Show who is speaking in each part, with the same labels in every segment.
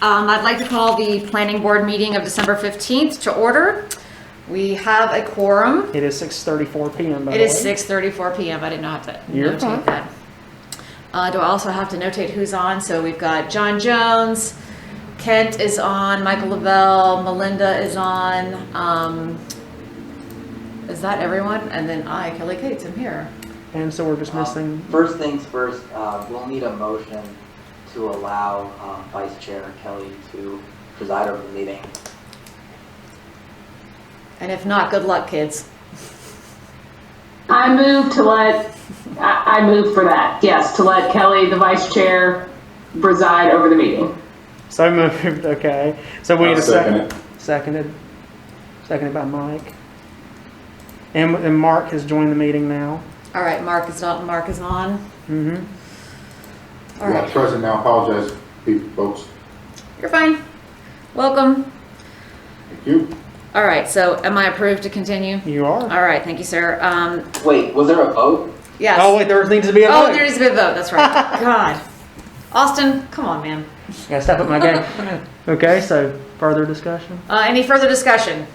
Speaker 1: Um, I'd like to call the planning board meeting of December 15th to order. We have a quorum.
Speaker 2: It is 6:34 PM, by the
Speaker 1: It
Speaker 2: way.
Speaker 1: is 6:34 PM. I did not have to
Speaker 2: You're
Speaker 1: notate
Speaker 2: fine.
Speaker 1: that. Uh, do I also have to notate who's on? So we've got John Jones, Kent is on, Michael Lavelle, Melinda is on. Um, is that everyone? And then I, Kelly Cates, am here.
Speaker 2: And so we're just missing,
Speaker 3: Um, First things first, uh, we'll need a motion to allow um, Vice Chair Kelly to preside over the meeting.
Speaker 1: And if not, good luck, kids.
Speaker 4: I move to let, I, I move for that, yes, to let Kelly, the vice chair, preside over the meeting.
Speaker 2: so moved, okay. So we need
Speaker 5: I'll
Speaker 2: a
Speaker 5: second
Speaker 2: second. Seconded, seconded by Mike. And, and Mark has joined the meeting now.
Speaker 1: All right, Mark is not, Mark is on.
Speaker 2: Mm-hmm.
Speaker 1: All right.
Speaker 5: Yeah, President, I apologize, people, folks.
Speaker 1: You're fine. Welcome.
Speaker 5: Thank you.
Speaker 1: All right, so am I approved to continue?
Speaker 2: You are.
Speaker 1: All right, thank you, sir. Um,
Speaker 3: Wait, was there a vote?
Speaker 1: yes.
Speaker 2: Oh, wait, there needs to be a
Speaker 1: Oh,
Speaker 2: vote.
Speaker 1: there needs to be a vote, that's right. God. Austin, come on, man.
Speaker 2: Gotta step up my game. Okay, so further discussion?
Speaker 1: Uh, any further discussion?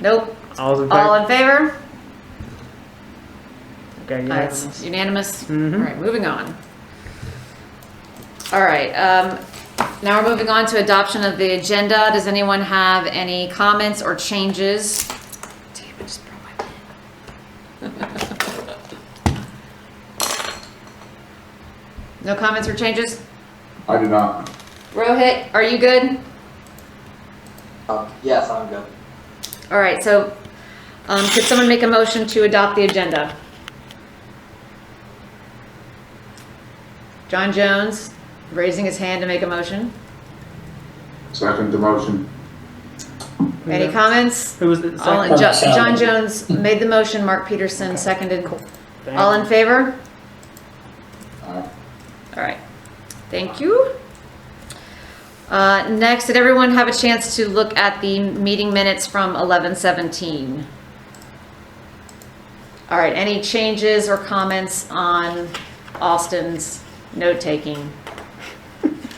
Speaker 1: Nope.
Speaker 2: All's in
Speaker 1: All
Speaker 2: favor?
Speaker 1: in favor?
Speaker 2: Okay,
Speaker 1: Uh, it's Unanimous?
Speaker 2: unanimous. Mhm.
Speaker 1: All right, moving on. All right, um, now we're moving on to adoption of the agenda. Does anyone have any comments or changes? Damn, I just broke my pen. No comments or changes?
Speaker 5: I do not.
Speaker 1: Rohit, are you good?
Speaker 3: Um, Yes, I'm good.
Speaker 1: All right, so, um, could someone make a motion to adopt the agenda? John Jones, raising his hand to make a motion.
Speaker 5: Second the motion.
Speaker 1: Any
Speaker 2: Yeah.
Speaker 1: comments?
Speaker 2: Who was the
Speaker 1: All,
Speaker 2: second?
Speaker 1: in- Jo- John Jones made the motion, Mark Peterson seconded.
Speaker 2: Dang.
Speaker 1: All in favor?
Speaker 5: Aye.
Speaker 1: All right, thank you. Uh, next, did everyone have a chance to look at the meeting minutes from eleven seventeen? All right, any changes or comments on Austin's note-taking?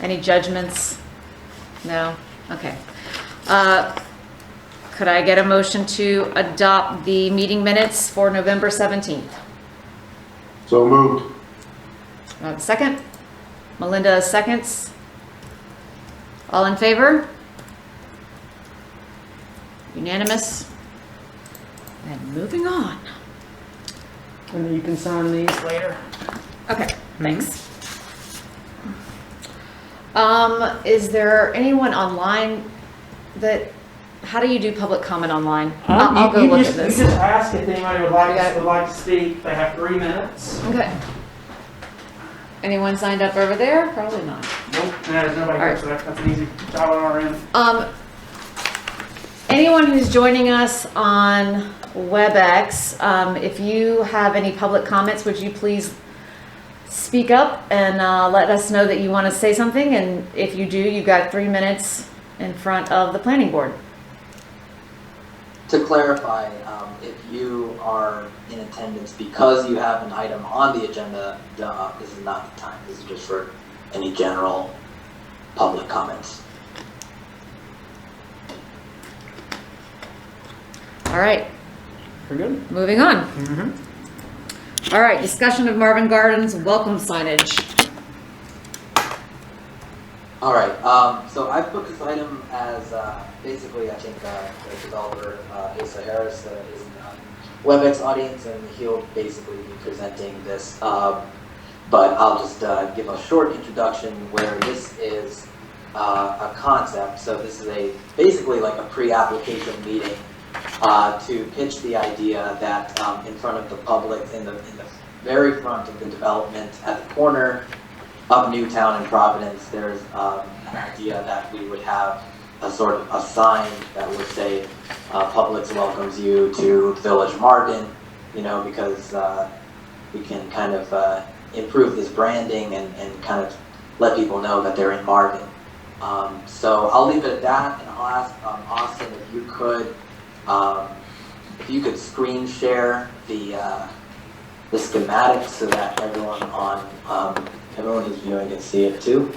Speaker 1: Any judgments? No? Okay. Uh, could I get a motion to adopt the meeting minutes for November seventeenth?
Speaker 5: So moved.
Speaker 1: Uh, Second? Melinda seconds. All in favor? Unanimous? And moving on.
Speaker 2: And you can sign these later.
Speaker 1: Okay,
Speaker 2: Hmm.
Speaker 1: thanks. Um, is there anyone online that, how do you do public comment online? I'll I'll go
Speaker 2: Uh, You- you
Speaker 1: look at
Speaker 2: just-
Speaker 1: this.
Speaker 2: You just ask if anybody would
Speaker 1: Yeah.
Speaker 2: like, would like to speak. They have three minutes.
Speaker 1: Okay. Anyone signed up over there? Probably not.
Speaker 2: Nope, no, there's nobody
Speaker 1: All
Speaker 2: here,
Speaker 1: right.
Speaker 2: so that's that's an easy job on our end.
Speaker 1: Um, anyone who's joining us on WebEx, um, if you have any public comments, would you please speak up and uh, let us know that you want to say something? And if you do, you've got three minutes in front of the planning board.
Speaker 3: To clarify, um, if you are in attendance because you have an item on the agenda, uh, this is not the time. This is just for any general public comments.
Speaker 1: All right,
Speaker 2: We're good? Mm-hmm.
Speaker 1: moving on. All right, discussion of Marvin Gardens welcome signage.
Speaker 3: All right, um, so I put this item as, uh, basically, I think, uh, the developer, uh, Asa Harris, uh, is in the WebEx audience, and he'll basically be presenting this, uh, but I'll just, uh, give a short introduction where this is, uh, a concept, so this is a, basically like a pre-application meeting, uh, to pitch the idea that, um, in front of the public, in the, in the very front of the development at the corner, of Newtown and Providence, there's um, an idea that we would have a sort of a sign that would say, uh, Publix welcomes you to Village Martin, you know, because uh, we can kind of uh, improve this branding and, and kind of let people know that they're in Martin. Um, so I'll leave it at that, and I'll ask um, Austin if you could, um, if you could screen share the uh, the schematic so that everyone on um, Everyone who's viewing can see it too.